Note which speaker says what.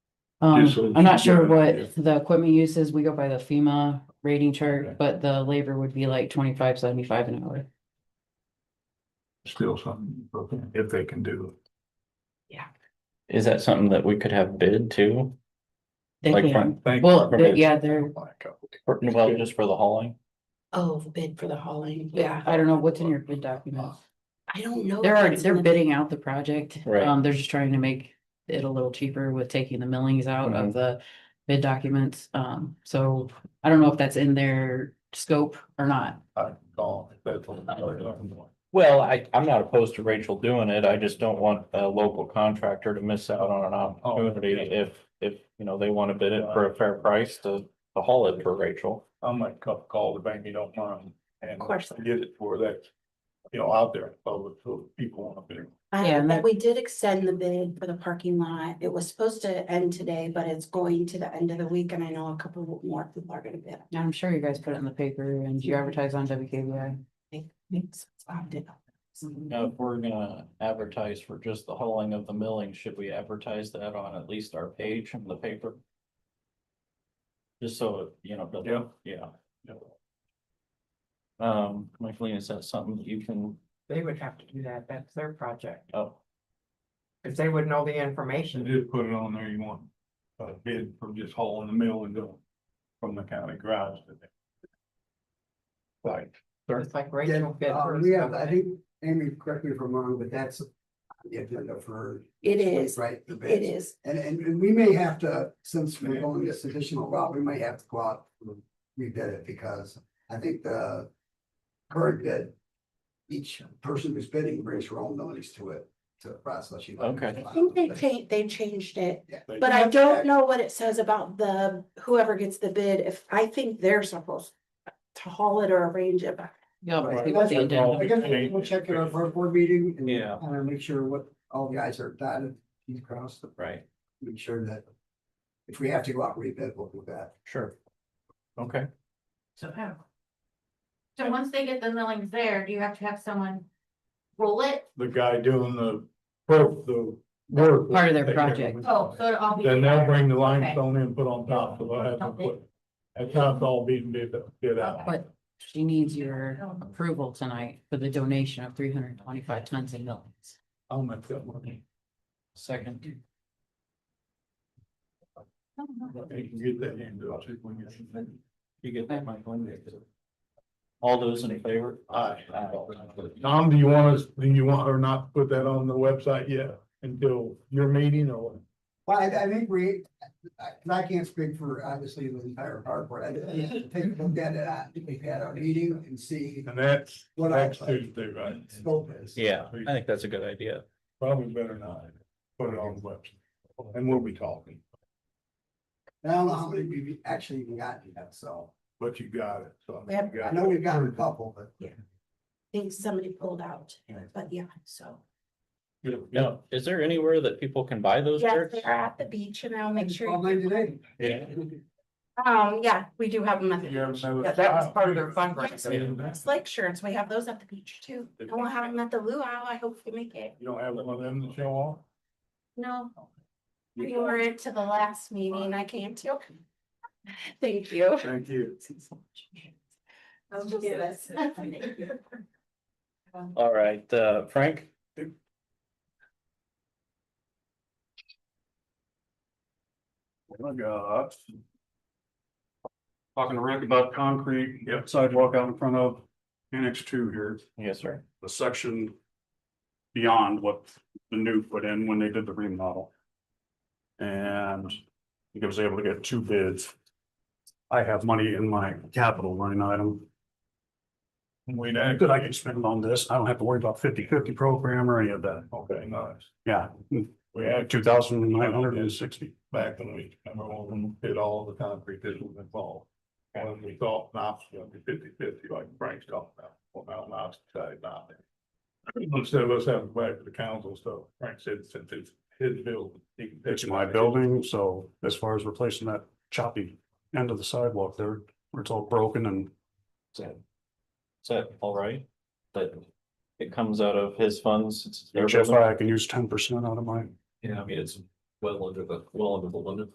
Speaker 1: Um,
Speaker 2: so
Speaker 1: I'm not
Speaker 2: she- yeah,
Speaker 1: sure
Speaker 2: yeah.
Speaker 1: what the equipment use is. We go by the FEMA rating
Speaker 2: Okay.
Speaker 1: chart, but the labor would be like twenty-five seventy-five an hour.
Speaker 2: Still something, broken, if they can do
Speaker 3: Is that something that we could have bid to?
Speaker 1: They
Speaker 3: Like
Speaker 1: can,
Speaker 2: it. Thank
Speaker 1: well,
Speaker 2: you.
Speaker 1: they- yeah, they're,
Speaker 3: Or- Well, just for the hauling?
Speaker 4: Oh, bid for the hauling, yeah,
Speaker 1: yeah, Oh, I don't know what's in your bid document.
Speaker 4: I don't know.
Speaker 1: They're
Speaker 4: if
Speaker 1: already,
Speaker 4: it's
Speaker 1: they're
Speaker 4: gonna-
Speaker 1: bidding out the project.
Speaker 3: Right.
Speaker 1: Um, they're just trying to make it a little cheaper with taking the millings out of the bid documents. Um, so I don't know if that's in their scope or not.
Speaker 2: I call it, that's what I'm talking about.
Speaker 3: Well, I, I'm not opposed to Rachel doing it. I just don't want a local contractor to miss out on an opportunity if, if, you know, they want to bid it for a fair price to, to haul it for Rachel.
Speaker 2: I might call, call the bank, you don't mind, and
Speaker 4: Of course.
Speaker 2: get it for that, you know, out there, in public, so people want to be.
Speaker 4: I
Speaker 1: Yeah,
Speaker 4: know
Speaker 1: and
Speaker 4: that
Speaker 1: that-
Speaker 4: we did extend the bid for the parking lot. It was supposed to end today, but it's going to the end of the week and I know a couple more people are gonna bid.
Speaker 1: Now, I'm sure you guys put it in the paper and you advertise on WKBI.
Speaker 4: Thanks. I did.
Speaker 3: Now, if we're gonna advertise for just the hauling of the milling, should we advertise that on at least our page in the paper? Just so, it, you know, build-
Speaker 2: Yeah.
Speaker 3: yeah. Um, Michaeline, is that something that you can,
Speaker 5: They would have to do that, that's their project,
Speaker 3: oh,
Speaker 5: because they would know the
Speaker 2: You
Speaker 5: information.
Speaker 2: just put it on there, you want a bid from just hauling the mill and going from the county garage to the. Like,
Speaker 5: It's like
Speaker 6: Yeah,
Speaker 5: Rachel bid
Speaker 6: uh,
Speaker 5: hers.
Speaker 6: we have, I
Speaker 5: company.
Speaker 6: think, Amy, correct me if I'm wrong, but that's on the agenda for.
Speaker 4: It is,
Speaker 6: Right? the
Speaker 4: it
Speaker 6: bids.
Speaker 4: is.
Speaker 6: And, and, and we may have to, since we're going this additional route, we may have to go out, and rebid it, because I think the current bid, each person who's bidding brings her own notice to it, to the process. You know.
Speaker 3: Okay.
Speaker 4: I think they changed, they changed it,
Speaker 2: they-
Speaker 4: but I don't know what it says about the, whoever gets the bid, if, I think they're supposed to haul it or arrange it, but
Speaker 1: Yeah.
Speaker 6: Right.
Speaker 1: I think it's the agenda.
Speaker 6: I guess we'll check it out for our board meeting. and-
Speaker 3: Yeah.
Speaker 6: And make sure what, all the eyes are dotted, T's crossed,
Speaker 3: right,
Speaker 6: make sure that if we have to go out and rebid, we'll do that.
Speaker 3: sure. Okay,
Speaker 5: So, yeah.
Speaker 7: So once they get the millings there, do you have to have someone roll it?
Speaker 2: The guy doing the, work- the work.
Speaker 1: Part of their
Speaker 2: They-
Speaker 1: project.
Speaker 7: Oh, so it'll all be.
Speaker 2: Then they'll
Speaker 7: together.
Speaker 2: bring the limestone in, and put on top, so they'll have to put, that's how it's all being bid, bid out.
Speaker 1: But she needs your approval tonight for the donation of three hundred and twenty-five tons of millings.
Speaker 2: I'll make that money.
Speaker 3: second.
Speaker 2: You can get that in, I'll see when you.
Speaker 3: You get that, Michaeline? All those in favor?
Speaker 2: Aye. Tom, do you want us, do you want her not to put that on the website yet until your meeting or?
Speaker 6: Well, I, I think we, I, 'cause I can't speak for obviously the entire park board. I just take a look at it, I think we've had our meeting and see
Speaker 2: And that's,
Speaker 6: what our
Speaker 2: that's Tuesday, right?
Speaker 6: scope is.
Speaker 3: Yeah, I think that's a good idea.
Speaker 2: Probably better not put it on the website. And we'll be talking,
Speaker 6: And I don't know how many we've actually even gotten yet, so
Speaker 2: but you got it, so.
Speaker 4: We have-
Speaker 2: you got
Speaker 6: I
Speaker 2: it.
Speaker 6: know we've gotten a couple, but.
Speaker 4: I think somebody pulled out, but yeah, so.
Speaker 3: Now, is there anywhere that people can buy those
Speaker 4: Yes,
Speaker 3: shirts?
Speaker 4: they're at the beach and I'll make sure. you-
Speaker 6: Online today.
Speaker 3: Yeah.
Speaker 4: Um, yeah, we do have them at the
Speaker 2: You have
Speaker 4: beach.
Speaker 2: another-
Speaker 5: Yeah, that was part of their
Speaker 4: Yes,
Speaker 5: fundraiser.
Speaker 4: It's like shirts, we have those at the beach too,
Speaker 2: The
Speaker 4: and we'll have
Speaker 2: beach.
Speaker 4: them at the luau, I hope we make it,
Speaker 2: You don't have one of them to show off?
Speaker 4: no, we were into the last meeting I came to. Thank you.
Speaker 2: Thank you.
Speaker 4: I'll just-
Speaker 3: All right, uh, Frank?
Speaker 2: Oh, God.
Speaker 8: talking to Rick about concrete, yep, sidewalk out in front of annex two here,
Speaker 3: Yes, sir.
Speaker 8: the section beyond what the new put in when they did the remodel. And I think I was able to get two bids. I have money in my capital line item
Speaker 2: We
Speaker 8: that I can spend on this. I don't have to worry about 50-50 program or any of that.
Speaker 2: Okay, nice.
Speaker 8: Yeah,
Speaker 2: We had
Speaker 8: two thousand nine hundred and sixty.
Speaker 2: back when we, remember when we did all the concrete that was involved. When we thought Knox was gonna be fifty fifty, like Frank's talking about, well, now Knox decided not to. Instead of us having to go back to the council, so Frank said, since it's his building. he can take
Speaker 8: It's my building, so as far as replacing that choppy end of the sidewalk there, where it's all broken and
Speaker 3: Is that all right? That it comes out of his funds? it's their building?
Speaker 8: HFI, I can use ten percent out of my
Speaker 3: Yeah, I mean, it's well under the, well under the limit.